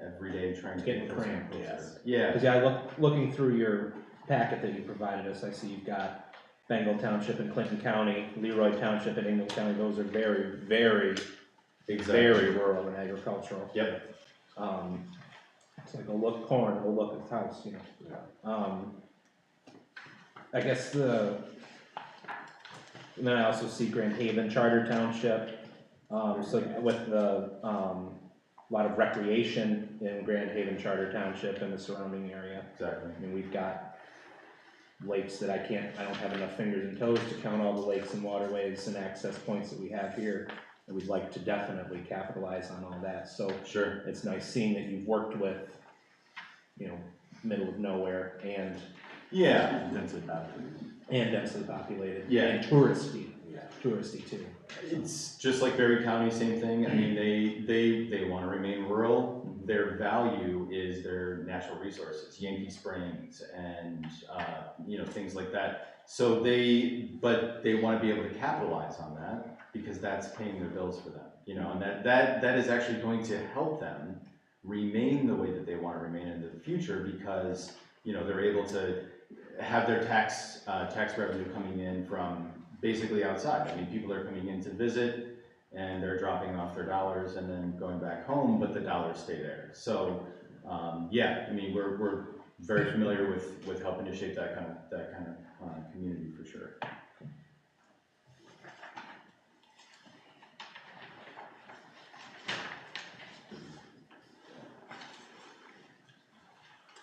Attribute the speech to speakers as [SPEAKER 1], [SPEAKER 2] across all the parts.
[SPEAKER 1] every day trying to.
[SPEAKER 2] It's getting
[SPEAKER 1] get closer and
[SPEAKER 2] cramped,
[SPEAKER 1] closer.
[SPEAKER 2] yes.
[SPEAKER 1] Yeah,
[SPEAKER 2] Cause yeah, I look, looking through your packet that you provided us, I see you've got Bengal Township and Clinton County, Leroy Township and England County, those are very, very, very
[SPEAKER 1] exactly.
[SPEAKER 2] rural and agricultural.
[SPEAKER 1] Yep,
[SPEAKER 2] Um, it's like, oh, look corn, oh, look it's house, you know? Um, I guess the, and then I also see Grand Haven Charter Township, um, so with the, um, lot of recreation in Grand Haven Charter Township and the surrounding area.
[SPEAKER 1] exactly.
[SPEAKER 2] I mean, we've got lakes that I can't, I don't have enough fingers and toes to count all the lakes and waterways and access points that we have here. And we'd like to definitely capitalize on all that, so
[SPEAKER 1] Sure,
[SPEAKER 2] it's nice seeing that you've worked with, you know, middle of nowhere and,
[SPEAKER 1] yeah,
[SPEAKER 2] and densely populated.
[SPEAKER 1] Yeah.
[SPEAKER 2] And touristy,
[SPEAKER 3] Yeah.
[SPEAKER 2] touristy too.
[SPEAKER 1] It's just like Berry County, same thing, I mean, they, they, they wanna remain rural, their value is their natural resources, Yankee Springs and, uh, you know, things like that. So they, but they wanna be able to capitalize on that, because that's paying their bills for them, you know, and that, that, that is actually going to help them remain the way that they wanna remain into the future, because, you know, they're able to have their tax, uh, tax revenue coming in from basically outside. I mean, people are coming in to visit and they're dropping off their dollars and then going back home, but the dollars stay there. So, um, yeah, I mean, we're, we're very familiar with, with helping to shape that kind of, that kind of, uh, community for sure.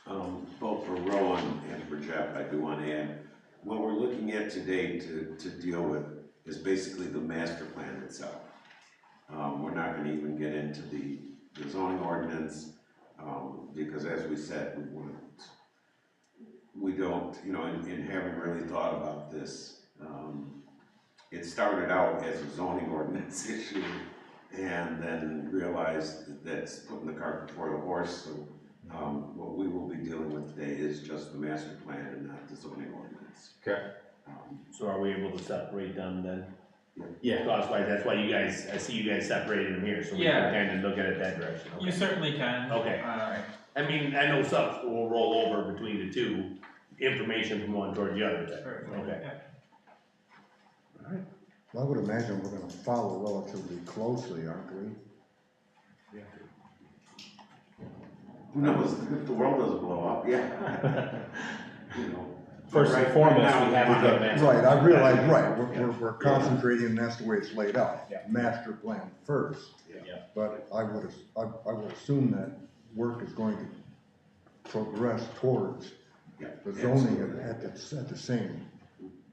[SPEAKER 3] Um, both for Rowan and for Jeff, I do want to add, what we're looking at today to, to deal with is basically the master plan itself. Um, we're not gonna even get into the, the zoning ordinance, um, because as we said, we want, we don't, you know, and, and haven't really thought about this. Um, it started out as a zoning ordinance issue, and then realized that that's putting the cart before the horse, so um, what we will be dealing with today is just the master plan and not the zoning ordinance.
[SPEAKER 1] Okay.
[SPEAKER 3] Um,
[SPEAKER 4] So are we able to separate them then?
[SPEAKER 1] Yeah,
[SPEAKER 4] Cost wise, that's why you guys, I see you guys separated them here, so we
[SPEAKER 5] Yeah.
[SPEAKER 4] can kind of look at it that direction,
[SPEAKER 5] You
[SPEAKER 4] okay?
[SPEAKER 5] certainly can.
[SPEAKER 4] Okay.
[SPEAKER 5] Uh,
[SPEAKER 4] I mean, I know stuff will roll over between the two, information from one toward the other, type.
[SPEAKER 5] certainly,
[SPEAKER 4] okay?
[SPEAKER 5] yeah.
[SPEAKER 6] Well, I would imagine we're gonna follow relatively closely, aren't we?
[SPEAKER 3] Who knows, if the world doesn't blow up, yeah. You know.
[SPEAKER 2] First and
[SPEAKER 3] Right
[SPEAKER 2] foremost,
[SPEAKER 3] now,
[SPEAKER 2] we have to get a
[SPEAKER 3] wanna-
[SPEAKER 2] master.
[SPEAKER 6] Right, I realize, right, we're,
[SPEAKER 2] Yeah.
[SPEAKER 6] we're, we're concentrating, and that's the way it's laid out.
[SPEAKER 2] Yeah.
[SPEAKER 6] Master plan first.
[SPEAKER 3] Yeah.
[SPEAKER 1] Yeah.
[SPEAKER 6] But I would, as- I, I would assume that work is going to progress towards
[SPEAKER 3] Yeah,
[SPEAKER 6] the zoning
[SPEAKER 3] absolutely.
[SPEAKER 6] at, at the, at the same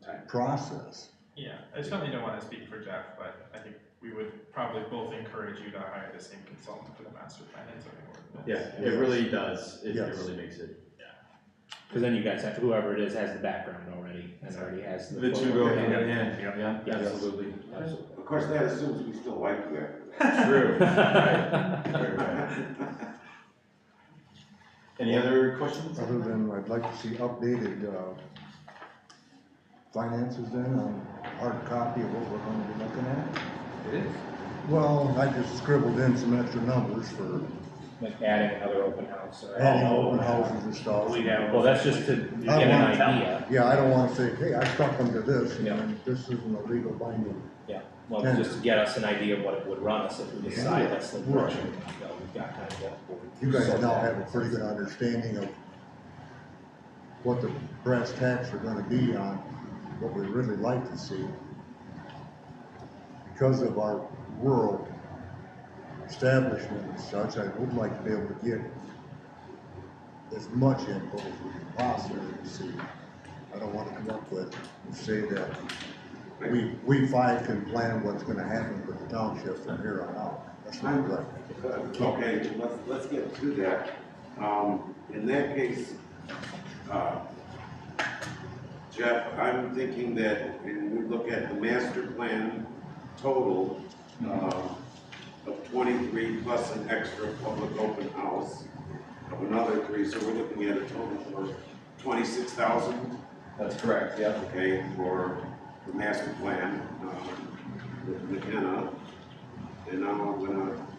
[SPEAKER 3] Time.
[SPEAKER 6] process.
[SPEAKER 5] Yeah, I certainly don't wanna speak for Jeff, but I think we would probably both encourage you to hire the same consultant for the master plan and zoning ordinance.
[SPEAKER 1] yeah, it really does, it, it
[SPEAKER 6] Yes.
[SPEAKER 1] really makes it,
[SPEAKER 2] Cause then you guys have, whoever it is has the background already and already has the.
[SPEAKER 1] the two go
[SPEAKER 2] footwork.
[SPEAKER 1] hand in hand,
[SPEAKER 4] Yep.
[SPEAKER 1] yeah,
[SPEAKER 2] Yes.
[SPEAKER 1] absolutely, absolutely.
[SPEAKER 3] Of course, that assumes we still like you after
[SPEAKER 1] True, right,
[SPEAKER 2] Absolutely.
[SPEAKER 1] right, right.
[SPEAKER 3] that.
[SPEAKER 1] Any other questions?
[SPEAKER 6] Other than, I'd like to see updated, uh, finances then, on hard copy of what we're gonna be looking at.
[SPEAKER 1] It is.
[SPEAKER 6] Well, I just scribbled in some extra numbers for
[SPEAKER 2] Like adding another open house or.
[SPEAKER 6] adding open houses and stuff.
[SPEAKER 4] We have-
[SPEAKER 2] Well, that's just to get an idea,
[SPEAKER 6] Yeah, I don't wanna say, hey, I stuck them to this,
[SPEAKER 2] Yeah.
[SPEAKER 6] and this isn't a legal binding.
[SPEAKER 2] well, just to get us an idea of what it would run us if we decide that's the direction we're gonna go, we've got kind of what.
[SPEAKER 6] You guys now have a pretty good understanding of what the brass tacks are gonna be on, what we really like to see. Because of our rural establishment and such, I would like to be able to get as much input as we can possibly see. I don't wanna come up with, and say that we, we five can plan what's gonna happen with the township from here on out. That's not right.
[SPEAKER 3] Okay, let's, let's get to that. Um, in that case, uh, Jeff, I'm thinking that when we look at the master plan total, um, of twenty-three plus an extra public open house of another three, so we're looking at a total of twenty-six thousand
[SPEAKER 1] That's correct, yeah.
[SPEAKER 3] okay, for the master plan, um, with McKenna. uh, And now I'm gonna uh,